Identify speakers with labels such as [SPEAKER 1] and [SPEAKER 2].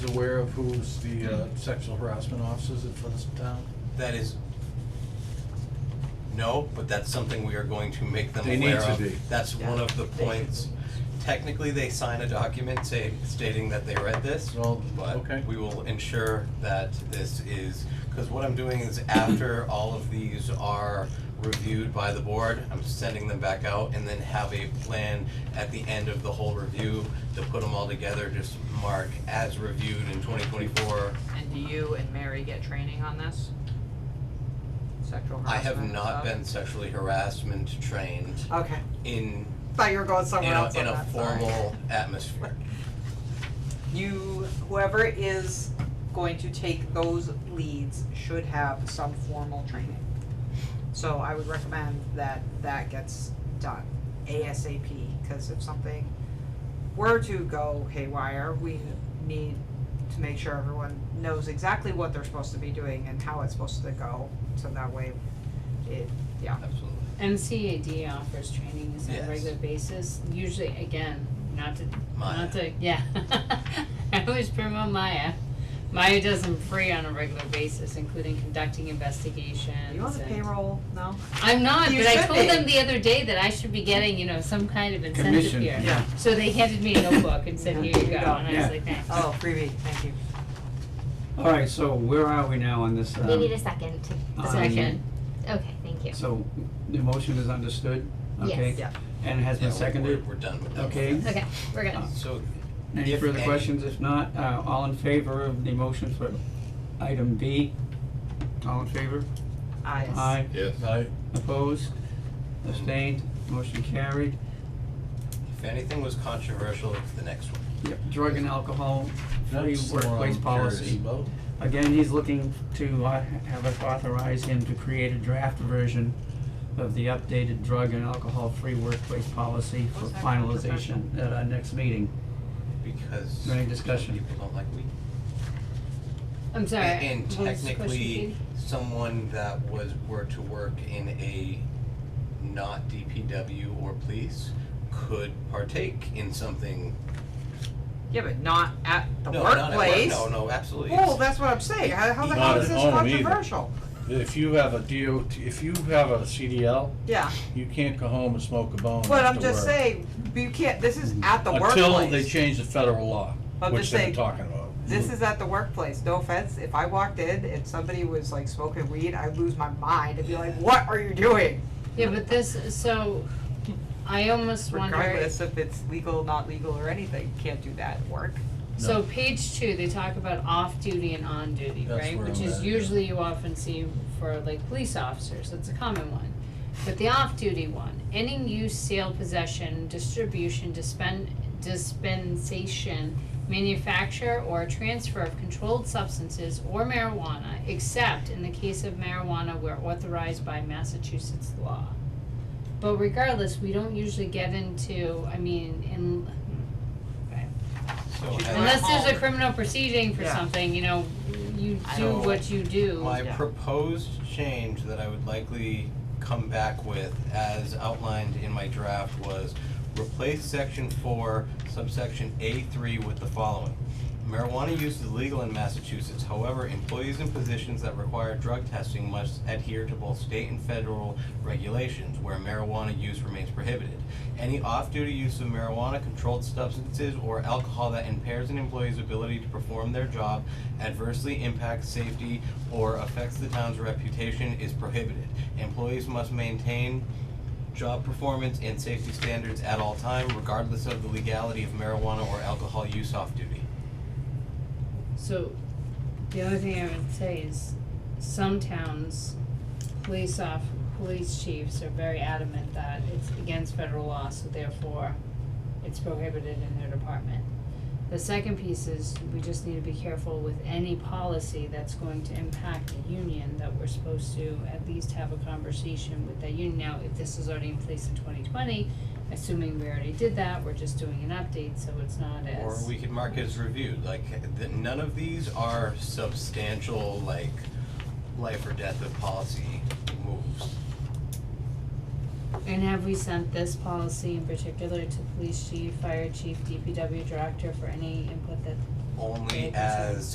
[SPEAKER 1] aware of who's the uh, sexual harassment officers for this town?
[SPEAKER 2] That is, no, but that's something we are going to make them
[SPEAKER 1] They need
[SPEAKER 2] aware
[SPEAKER 1] to
[SPEAKER 2] of.
[SPEAKER 1] be.
[SPEAKER 2] That's one of the
[SPEAKER 3] They
[SPEAKER 2] points. Technically, they sign a document say, stating that they read this,
[SPEAKER 1] Well, okay.
[SPEAKER 2] but we will ensure that this is, because what I'm doing is after all of these are reviewed by the board, I'm sending them back out and then have a plan at the end of the whole review to put them all together, just mark as reviewed in twenty twenty-four,
[SPEAKER 3] And do you and Mary get training on this? Sexual harassment?
[SPEAKER 2] I have not
[SPEAKER 3] stuff?
[SPEAKER 2] been sexually harassment trained
[SPEAKER 4] Okay,
[SPEAKER 2] in,
[SPEAKER 4] thought you were going
[SPEAKER 2] in
[SPEAKER 4] somewhere
[SPEAKER 2] a,
[SPEAKER 4] else
[SPEAKER 2] in
[SPEAKER 4] on
[SPEAKER 2] a
[SPEAKER 4] that, sorry.
[SPEAKER 2] formal atmosphere.
[SPEAKER 4] You, whoever is going to take those leads should have some formal training. So I would recommend that that gets done ASAP, cause if something were to go haywire, we need to make sure everyone knows exactly what they're supposed to be doing and how it's supposed to go, so that way it, yeah.
[SPEAKER 2] Absolutely.
[SPEAKER 5] MCAD offers trainings on
[SPEAKER 2] Yes.
[SPEAKER 5] a regular basis, usually, again, not to,
[SPEAKER 2] Maya.
[SPEAKER 5] not to, yeah. I always promote Maya. Maya does them free on a regular basis, including conducting investigations
[SPEAKER 4] You on the
[SPEAKER 5] and-
[SPEAKER 4] payroll, no?
[SPEAKER 5] I'm not,
[SPEAKER 4] You
[SPEAKER 5] but I
[SPEAKER 4] should
[SPEAKER 5] told them
[SPEAKER 4] be.
[SPEAKER 5] the other day that I should be getting, you know, some kind of incentive
[SPEAKER 6] Commission,
[SPEAKER 5] here.
[SPEAKER 6] yeah.
[SPEAKER 5] So they handed me a notebook and said,
[SPEAKER 4] Yeah,
[SPEAKER 5] here you
[SPEAKER 4] here
[SPEAKER 5] go,
[SPEAKER 4] you go.
[SPEAKER 5] and I
[SPEAKER 6] Yeah.
[SPEAKER 5] was like, thanks.
[SPEAKER 4] Oh, freebie, thank you.
[SPEAKER 6] All right, so where are we now on this?
[SPEAKER 7] We
[SPEAKER 6] um,
[SPEAKER 7] need a second to,
[SPEAKER 6] on-
[SPEAKER 2] Um,
[SPEAKER 5] Second,
[SPEAKER 7] okay, thank you.
[SPEAKER 6] So the motion is understood, okay?
[SPEAKER 7] Yes.
[SPEAKER 4] Yeah.
[SPEAKER 6] And has
[SPEAKER 2] Yeah,
[SPEAKER 6] been
[SPEAKER 2] we're-
[SPEAKER 6] seconded,
[SPEAKER 2] We're, we're done with that.
[SPEAKER 6] okay? Uh,
[SPEAKER 7] Okay, we're good.
[SPEAKER 2] So,
[SPEAKER 6] Any
[SPEAKER 2] If
[SPEAKER 6] further
[SPEAKER 2] any.
[SPEAKER 6] questions? If not, uh, all in favor of the motion for item B? All in favor?
[SPEAKER 4] I.
[SPEAKER 6] Aye.
[SPEAKER 8] Yes.
[SPEAKER 1] I,
[SPEAKER 6] Opposed? Abstained? Motion carried.
[SPEAKER 2] if anything was controversial, it's the next one.
[SPEAKER 6] Yep, drug and alcohol free
[SPEAKER 1] that's the one
[SPEAKER 6] workplace
[SPEAKER 1] I'm curious
[SPEAKER 6] policy.
[SPEAKER 1] about.
[SPEAKER 6] Again, he's looking to uh, have us authorize him to create a draft version of the updated drug and alcohol-free workplace policy for
[SPEAKER 3] What's that
[SPEAKER 6] finalization at our next meeting.
[SPEAKER 2] Because
[SPEAKER 6] Any discussion?
[SPEAKER 2] people don't like weed.
[SPEAKER 5] I'm sorry,
[SPEAKER 2] And
[SPEAKER 5] what was the question,
[SPEAKER 2] technically,
[SPEAKER 5] Katie?
[SPEAKER 2] someone that was, were to work in a not DPW or police could partake in something.
[SPEAKER 4] Yeah, but not at the
[SPEAKER 2] No, not at work.
[SPEAKER 4] workplace.
[SPEAKER 2] No, no, absolutely.
[SPEAKER 4] Well, that's what I'm saying, how, how the hell
[SPEAKER 1] Not
[SPEAKER 4] is
[SPEAKER 1] at
[SPEAKER 4] this
[SPEAKER 1] home either.
[SPEAKER 4] controversial?
[SPEAKER 1] If you have a DOT, if you have a CDL,
[SPEAKER 4] Yeah,
[SPEAKER 1] you can't go home and smoke a bone
[SPEAKER 4] but I'm
[SPEAKER 1] after
[SPEAKER 4] just
[SPEAKER 1] work.
[SPEAKER 4] saying, you can't, this is at the
[SPEAKER 1] Until they
[SPEAKER 4] workplace,
[SPEAKER 1] change the federal law,
[SPEAKER 4] I'm
[SPEAKER 1] which
[SPEAKER 4] just
[SPEAKER 1] they're
[SPEAKER 4] saying-
[SPEAKER 1] talking about.
[SPEAKER 4] this is at the workplace, no offense, if I walked in and somebody was like smoking weed, I'd lose my mind and be like, what are you doing?
[SPEAKER 5] Yeah, but this, so, I almost wonder.
[SPEAKER 4] Regardless if it's legal, not legal or anything, can't do that at work.
[SPEAKER 5] So page two, they talk about off-duty and on-duty,
[SPEAKER 1] That's
[SPEAKER 5] right,
[SPEAKER 1] where
[SPEAKER 5] which
[SPEAKER 1] I'm
[SPEAKER 5] is
[SPEAKER 1] at, yeah.
[SPEAKER 5] usually you often see for like police officers, that's a common one. But the off-duty one, any use, sale, possession, distribution, dispen- dispensation, manufacture or transfer of controlled substances or marijuana, except in the case of marijuana where authorized by Massachusetts law. But regardless, we don't usually get into, I mean, in,
[SPEAKER 2] So has-
[SPEAKER 5] Unless there's a criminal proceeding for
[SPEAKER 4] Yeah.
[SPEAKER 5] something, you know, you
[SPEAKER 2] I
[SPEAKER 5] do
[SPEAKER 2] don't-
[SPEAKER 5] what you do.
[SPEAKER 2] My
[SPEAKER 4] Yeah.
[SPEAKER 2] proposed change that I would likely come back with, as outlined in my draft, was replace section four, subsection A three with the following. Marijuana use is legal in Massachusetts, however, employees in positions that require drug testing must adhere to both state and federal regulations where marijuana use remains prohibited. Any off-duty use of marijuana, controlled substances, or alcohol that impairs an employee's ability to perform their job adversely impacts safety or affects the town's reputation is prohibited. Employees must maintain job performance and safety standards at all time, regardless of the legality of marijuana or alcohol use off-duty.
[SPEAKER 5] So, the other thing I would say is, some towns, police off, police chiefs are very adamant that it's against federal law, so therefore, it's prohibited in their department. The second piece is, we just need to be careful with any policy that's going to impact the union, that we're supposed to at least have a conversation with that union. Now, if this is already in place in twenty twenty, assuming we already did that, we're just doing an update, so it's not as.
[SPEAKER 2] Or we could mark as reviewed, like, th- none of these are substantial, like, life or death of policy moves.
[SPEAKER 5] And have we sent this policy in particular to police chief, fire chief, DPW director for any input that
[SPEAKER 2] only
[SPEAKER 5] Right, that's
[SPEAKER 2] as